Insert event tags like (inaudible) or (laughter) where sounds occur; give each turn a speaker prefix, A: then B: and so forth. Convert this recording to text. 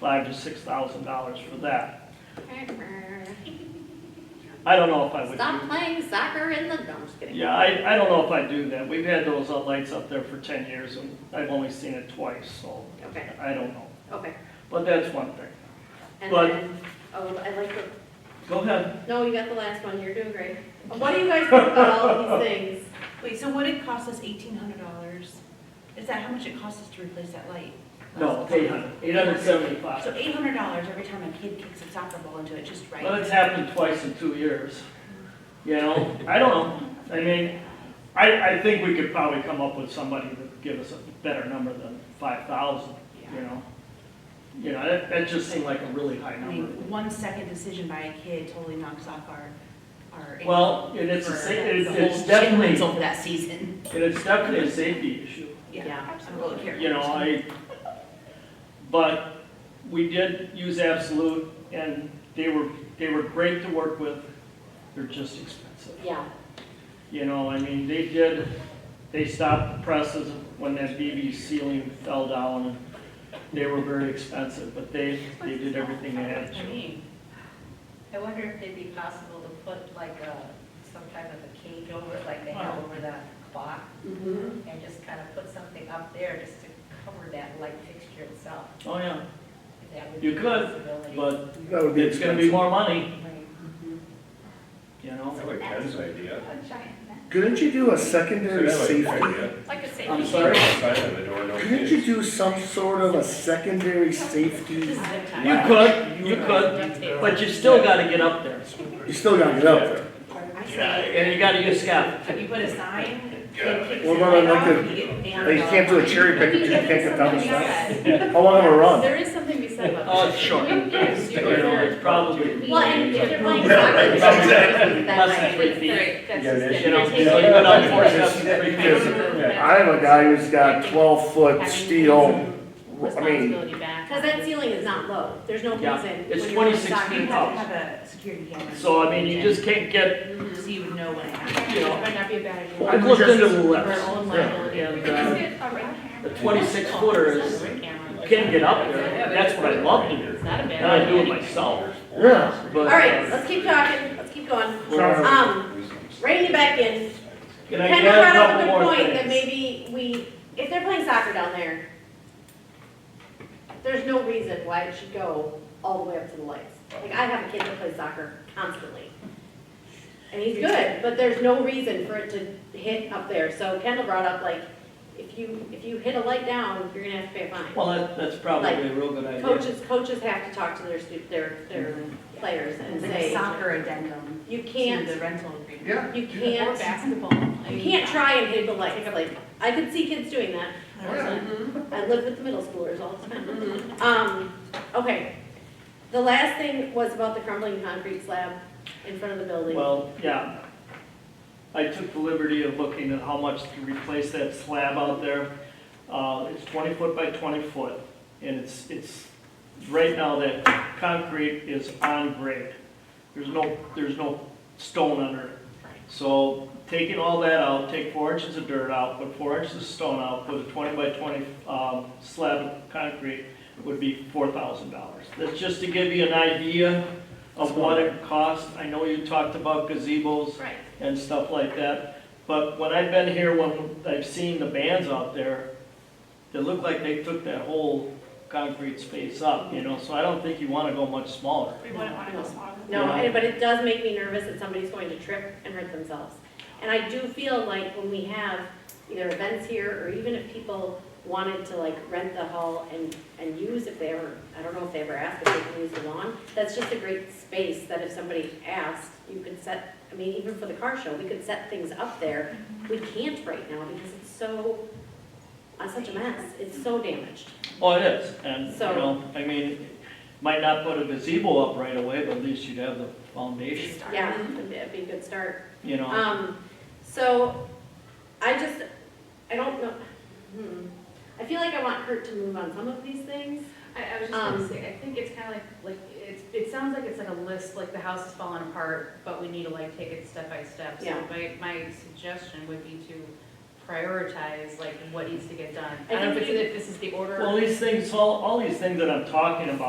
A: five to six thousand dollars for that. I don't know if I would do
B: Stop playing soccer in the, no, I'm just kidding.
A: Yeah, I, I don't know if I do that. We've had those uh, lights up there for ten years and I've only seen it twice, so
B: Okay,
A: I don't know.
B: okay.
A: But that's one thing.
B: And
A: But-
B: then, oh, I like the,
A: Go ahead.
B: no, you got the last one, you're doing great. What do you guys think about all these things?
A: (laughs)
C: Wait, so what it cost us eighteen hundred dollars? Is that how much it costs us to replace that light?
A: No, eight hundred, eight hundred
C: So
A: seventy-five.
C: eight hundred dollars every time a kid kicks a soccer ball into it, just right?
A: But it's happened twice in two years. You know, I don't know. I mean, I, I think we could probably come up with somebody that would give us a better number than five thousand, you
C: Yeah.
A: know? You know, that, that just seemed like a really high
C: I
A: number.
C: mean, one second decision by a kid totally knocks off our, our.
A: Well, and it's, a
C: for
A: sa- it's
C: the
A: it's
C: whole
A: definitely,
C: rental for that season.
A: and it's definitely a safety issue.
B: Yeah,
C: Absolutely. here.
A: you know, I, but we did use Absolute, and they were, they were great to work with, they're just expensive.
B: Yeah,
A: You know, I mean, they did, they stopped the presses when that BB ceiling fell down, and they were very expensive, but they, they did everything they had
C: I
A: to.
C: mean,
D: I wonder if it'd be possible to put like a, some type of a cage over it, like they have over the clock,
A: Mm-hmm.
B: mhm,
D: Mm-hmm. and just kind of put something up there just to cover that light fixture itself.
A: Oh, yeah,
D: if that would
A: You
D: be a
A: could,
D: possibility.
A: but
E: That would be
A: it's gonna be
E: expensive.
A: more money,
D: Right.
A: you know?
F: I like Ken's idea.
D: A giant net.
E: Couldn't you do a secondary
F: That's a good
E: safety?
F: idea.
D: Like a
A: I'm
D: safety.
A: sorry.
F: Outside of the door, no
E: Couldn't
F: kids.
E: you do some sort of a secondary safety?
C: This is their time.
A: You could, you could, but you still gotta get up there,
E: You still gotta get up there.
C: I say,
A: and you gotta use scaffolding.
C: can you put a sign? Kid kicks
E: What
C: the
E: about
C: light
E: like
C: off,
E: a-
C: you get banned
E: Like, you can't
D: uh,
E: do a cherry pick if you can't get down the side. How long of a run?
B: there is something to be said about
A: Oh,
B: that.
A: it's short.
B: You can
A: You
B: do
A: know,
B: it.
A: it's probably,
B: Well, and if you're playing
F: Yeah,
B: soccer,
F: right,
B: then that
A: Less than
B: might
A: three
B: be
A: feet.
B: great. That's
F: Yeah,
B: just
F: that's-
B: it.
A: you know,
B: You're
A: you know,
B: taking
A: you go down
B: it.
A: four steps, you three feet.
F: Yeah.
E: I have a guy who's got twelve foot steel, I mean,
G: responsibility back.
B: Cause that ceiling is not low, there's no
A: Yeah,
B: reason.
A: it's
B: when you're playing
A: 26
B: soccer
C: You
A: feet
B: to-
C: have to have a security camera.
A: So, I mean, you just can't get,
B: Mhm.
C: So you would know when it happens.
A: you
G: That
A: know,
G: might not be a bad idea.
A: I've looked into the
G: For
A: lifts,
G: our own
A: and,
G: liability.
A: uh, the twenty-six footer is,
G: Ring camera.
A: you can get up there, that's what I love to do,
G: It's not a bad
A: and I do it
G: idea.
A: myself,
E: yeah.
A: but.
B: All right, let's keep talking, let's keep going.
E: Sorry.
B: Um, reining it back in,
A: Can I
B: Ken
A: add
B: brought
A: a
B: up a
A: couple
B: good
A: more
B: point that
A: things?
B: maybe we, if they're playing soccer down there, there's no reason why it should go all the way up to the lights. Like, I have a kid that plays soccer constantly. And he's good, but there's no reason for it to hit up there. So Kendall brought up, like, if you, if you hit a light down, you're gonna have to pay a fine.
A: Well, that, that's probably a real good idea.
B: Coaches, coaches have to talk to their stu, their, their players and
C: It's like a
B: say,
C: soccer addendum
B: you
C: to
B: can't,
C: the rental agreement.
E: Yeah.
B: you
G: Or
B: can't
G: basketball. I
B: You
G: mean,
B: can't try and hit the lights, like, I could see kids doing that.
D: Mm-hmm.
B: I live with the middle schoolers all the time. Um, okay. The last thing was about the crumbling concrete slab in front of the building.
A: Well, yeah. I took the liberty of looking at how much to replace that slab out there. Uh, it's twenty foot by twenty foot, and it's, it's, right now that concrete is on grade. There's no, there's no stone under it. So taking all that out, take four inches of dirt out, put four inches of stone out, put a twenty by twenty, um, slab of concrete would be four thousand dollars. That's just to give you an idea of what it costs. I know you talked about gazebos
B: Right.
A: and stuff like that. But when I've been here, when I've seen the bands out there, they look like they took that whole concrete space up, you know, so I don't think you wanna go much smaller.
G: We wouldn't want to go smaller.
B: No, and- but it does make me nervous that somebody's going to trip and hurt themselves. And I do feel like when we have either events here, or even if people wanted to like rent the hall and, and use if they ever, I don't know if they ever asked if they can use the lawn, that's just a great space that if somebody asked, you could set, I mean, even for the car show, we could set things up there. We can't right now because it's so, uh, such a mess, it's so damaged.
A: Oh, it is, and, you
B: So-
A: know, I mean, might not put a gazebo up right away, but at least you'd have the foundation,
B: Yeah, it'd be- it'd be a good start.
A: you know?
B: Um, so, I just, I don't know, hmm, I feel like I want Kurt to move on some of these things.
H: I, I was just gonna
B: Um,
H: say, I think it's kinda like, like, it's, it sounds like it's like a list, like the house is falling apart, but we need to like take it step by step. So
B: Yeah.
H: my, my suggestion would be to prioritize like what needs to get done.
B: I
H: I don't know if
B: think
H: it's, if this is the order.
A: Well, these things, all, all these things that I'm talking about